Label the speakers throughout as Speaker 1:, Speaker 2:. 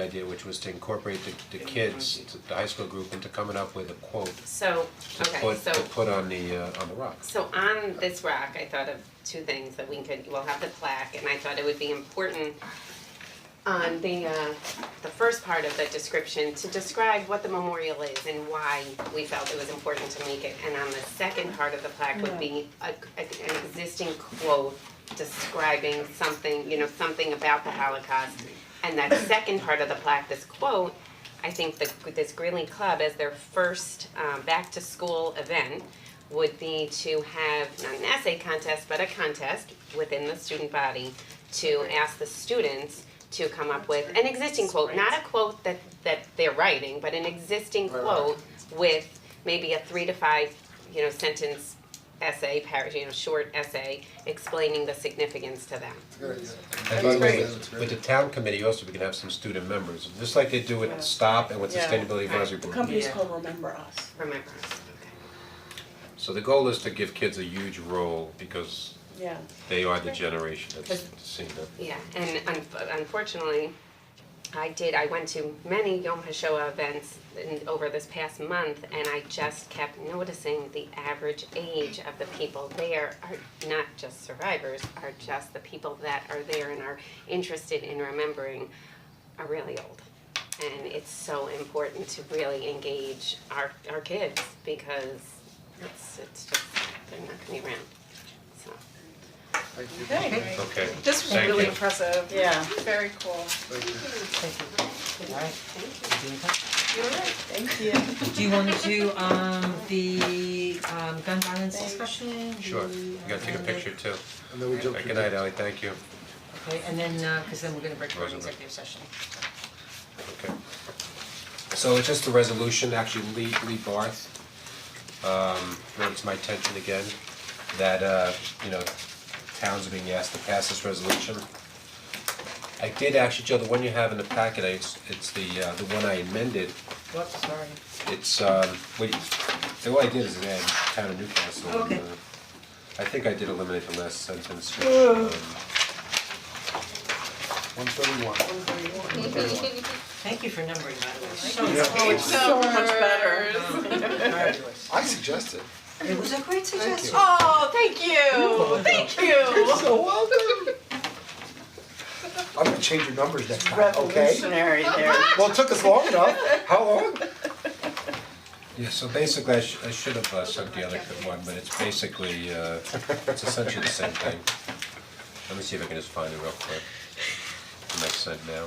Speaker 1: idea, which was to incorporate the the kids, to- the high school group into coming up with a quote
Speaker 2: So,
Speaker 1: to
Speaker 2: okay,
Speaker 1: put, to
Speaker 2: so,
Speaker 1: put on the uh on the rocks.
Speaker 2: so on this rock, I thought of two things that we could, we'll have the plaque, and I thought it would be important on the uh, the first part of the description to describe what the memorial is and why we felt it was important to make it. And on the second part of the plaque would be a, a- an existing quote describing something, you know, something about the Holocaust. And that second part of the plaque, this quote, I think the, this Greeley Club as their first um, back to school event would be to have not an essay contest, but a contest within the student body to ask the students to come up with an existing quote, not a quote that that they're writing, but an existing
Speaker 1: Right, right.
Speaker 2: quote with maybe a three to five, you know, sentence essay, par- you know, short essay explaining the significance to them.
Speaker 1: And by the way, with with the town committee also, we can have some student members, just like they do with STOP and with
Speaker 3: Yeah.
Speaker 1: Sustainability Advisory Board.
Speaker 3: Companies called Remember Us.
Speaker 2: Remember.
Speaker 1: So the goal is to give kids a huge role because
Speaker 3: Yeah.
Speaker 1: they are the generation that's seeing that.
Speaker 2: Yeah, and un- unfortunately, I did, I went to many Yom HaShoah events in, over this past month, and I just kept noticing the average age of the people there are not just survivors, are just the people that are there and are interested in remembering are really old. And it's so important to really engage our, our kids, because it's, it's just, they're not gonna be around, so.
Speaker 4: Okay,
Speaker 1: Okay,
Speaker 4: this was
Speaker 1: Thank
Speaker 4: really
Speaker 1: you.
Speaker 4: impressive.
Speaker 3: Yeah.
Speaker 4: Very cool. Thank you.
Speaker 5: Do you wanna do um the um gun violence discussion?
Speaker 1: sure,
Speaker 5: The,
Speaker 1: you gotta take a
Speaker 5: um,
Speaker 1: picture too.
Speaker 6: And then we jump to
Speaker 1: Good night, Ally, thank you.
Speaker 5: Okay, and then uh, cause then we're gonna break for an
Speaker 1: Rosenberg.
Speaker 5: executive session.
Speaker 1: Okay. So it's just a resolution, actually Lee Lee Barth, um, brought it to my attention again, that uh, you know, towns are being asked to pass this resolution. I did actually, Joe, the one you have in the packet, I, it's it's the uh, the one I amended,
Speaker 5: Whoops, sorry.
Speaker 1: it's um, wait, the one I did is add town of Newcastle. and,
Speaker 5: Okay.
Speaker 1: uh, I think I did eliminate the last sentence, which um,
Speaker 6: One thirty-one.
Speaker 5: Thank you for numbering, by the way.
Speaker 3: Oh, it's so much better.
Speaker 5: Fabulous.
Speaker 6: I suggested.
Speaker 5: It was a great suggestion.
Speaker 4: Oh, thank you, thank you.
Speaker 6: So welcome. I'm gonna change your numbers next time, okay?
Speaker 3: Revolutionary there.
Speaker 6: Well, it took us long enough. How long?
Speaker 1: Yeah, so basically, I should, I should have uh, sent the other co- one, but it's basically, uh, it's essentially the same thing. Let me see if I can just find it real quick. It makes sense now.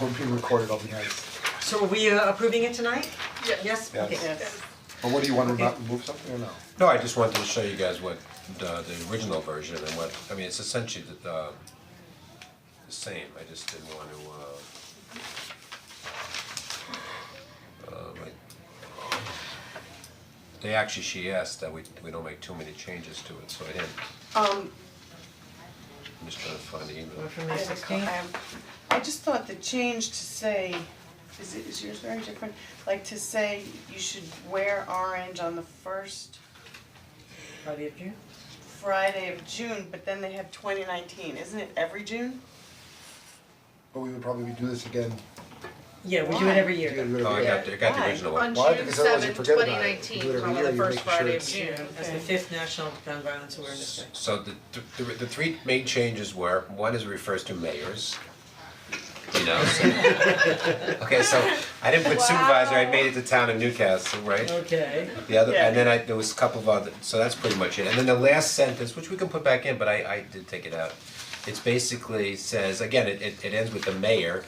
Speaker 6: We're being recorded, I'll be nice.
Speaker 5: So are we uh, approving it tonight? Yes.
Speaker 6: Yes.
Speaker 5: okay.
Speaker 3: Yes.
Speaker 6: But what do you wanna not move something or no?
Speaker 1: No, I just wanted to show you guys what, the, the original version and what, I mean, it's essentially the, uh, the same, I just didn't want to, uh, um, I- they actually, she asked that we, we don't make too many changes to it, so I didn't,
Speaker 3: Um,
Speaker 1: I'm just trying to find the email.
Speaker 5: We're from
Speaker 3: I have
Speaker 5: the
Speaker 3: a co- I
Speaker 5: sixteenth.
Speaker 3: have- I just thought the change to say, is it, is yours very different? Like to say you should wear orange on the first
Speaker 5: Friday of June.
Speaker 3: Friday of June, but then they have twenty nineteen, isn't it every June?
Speaker 6: But we would probably do this again.
Speaker 5: Yeah, we do
Speaker 3: Why?
Speaker 5: it every
Speaker 6: Do
Speaker 5: year.
Speaker 6: it
Speaker 1: Oh, I
Speaker 6: again.
Speaker 1: got, the- I got the
Speaker 3: Why?
Speaker 1: original one.
Speaker 4: On
Speaker 6: Why?
Speaker 4: June
Speaker 6: Because otherwise you
Speaker 4: seventh,
Speaker 6: forget
Speaker 4: twenty
Speaker 6: about it. You do it
Speaker 4: nineteen,
Speaker 6: every
Speaker 4: call it
Speaker 6: year,
Speaker 4: the
Speaker 6: you
Speaker 4: first
Speaker 6: make sure
Speaker 4: Friday of
Speaker 6: it's-
Speaker 4: June.
Speaker 5: As the fifth National Gun Violence Awareness Day.
Speaker 1: So the, the, the three main changes were, one is it refers to mayors. You know, so- okay, so I didn't put supervisor, I made it the town of Newcastle, right?
Speaker 5: Okay.
Speaker 1: The other,
Speaker 3: Yeah.
Speaker 1: and then I, there was a couple of other, so that's pretty much it, and then the last sentence, which we can put back in, but I I did take it out. It's basically says, again, it it it ends with the mayor,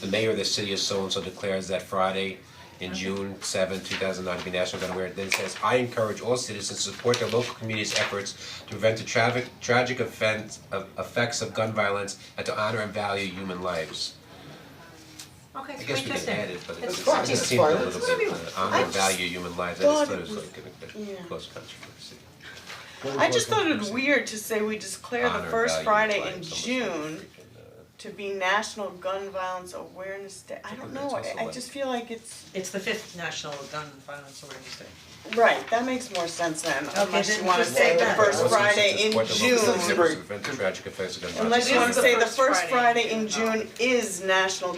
Speaker 1: the mayor of the city of so and so declares that Friday in June seventh, two thousand nine, to be National Gun Aware, then it says, I encourage all citizens to support their local community's efforts to prevent the traffic tragic offense of effects of gun violence and to honor and value human lives.
Speaker 5: Okay,
Speaker 1: I
Speaker 5: it's
Speaker 1: guess we can
Speaker 5: fantastic.
Speaker 1: add it, but it
Speaker 5: It's
Speaker 1: just
Speaker 6: fine,
Speaker 1: it
Speaker 6: it's
Speaker 1: just seemed a
Speaker 6: fine.
Speaker 1: little
Speaker 6: It's
Speaker 1: bit, uh, honor and
Speaker 3: just
Speaker 1: value human lives, I just
Speaker 3: thought
Speaker 1: thought
Speaker 3: it
Speaker 1: it was
Speaker 3: was-
Speaker 1: like
Speaker 3: yeah.
Speaker 1: a close controversy.
Speaker 6: What would
Speaker 3: I just
Speaker 6: like
Speaker 3: thought
Speaker 6: to
Speaker 3: it
Speaker 6: see?
Speaker 3: weird to say we declare the
Speaker 1: Honor,
Speaker 3: first
Speaker 1: value,
Speaker 3: Friday
Speaker 1: like,
Speaker 3: in
Speaker 1: someone's
Speaker 3: June
Speaker 1: freaking, uh,
Speaker 3: to be National Gun Violence Awareness Day. I
Speaker 1: But that's
Speaker 3: don't know, I
Speaker 1: also
Speaker 3: I
Speaker 1: like-
Speaker 3: just feel like it's,
Speaker 5: It's the fifth National Gun Violence Awareness Day.
Speaker 3: right, that makes more sense then, unless
Speaker 5: then
Speaker 3: you wanna
Speaker 5: just
Speaker 3: say
Speaker 5: say
Speaker 3: the
Speaker 5: that.
Speaker 3: first
Speaker 1: Also, it's
Speaker 3: Friday
Speaker 1: just
Speaker 3: in
Speaker 1: what the local
Speaker 3: June.
Speaker 1: citizens prevent the tragic effects of gun violence.
Speaker 3: Unless you
Speaker 4: It
Speaker 3: wanna
Speaker 4: is the
Speaker 3: say the
Speaker 4: first
Speaker 3: first
Speaker 4: Friday
Speaker 3: Friday
Speaker 4: in
Speaker 3: in
Speaker 4: June.
Speaker 3: June is National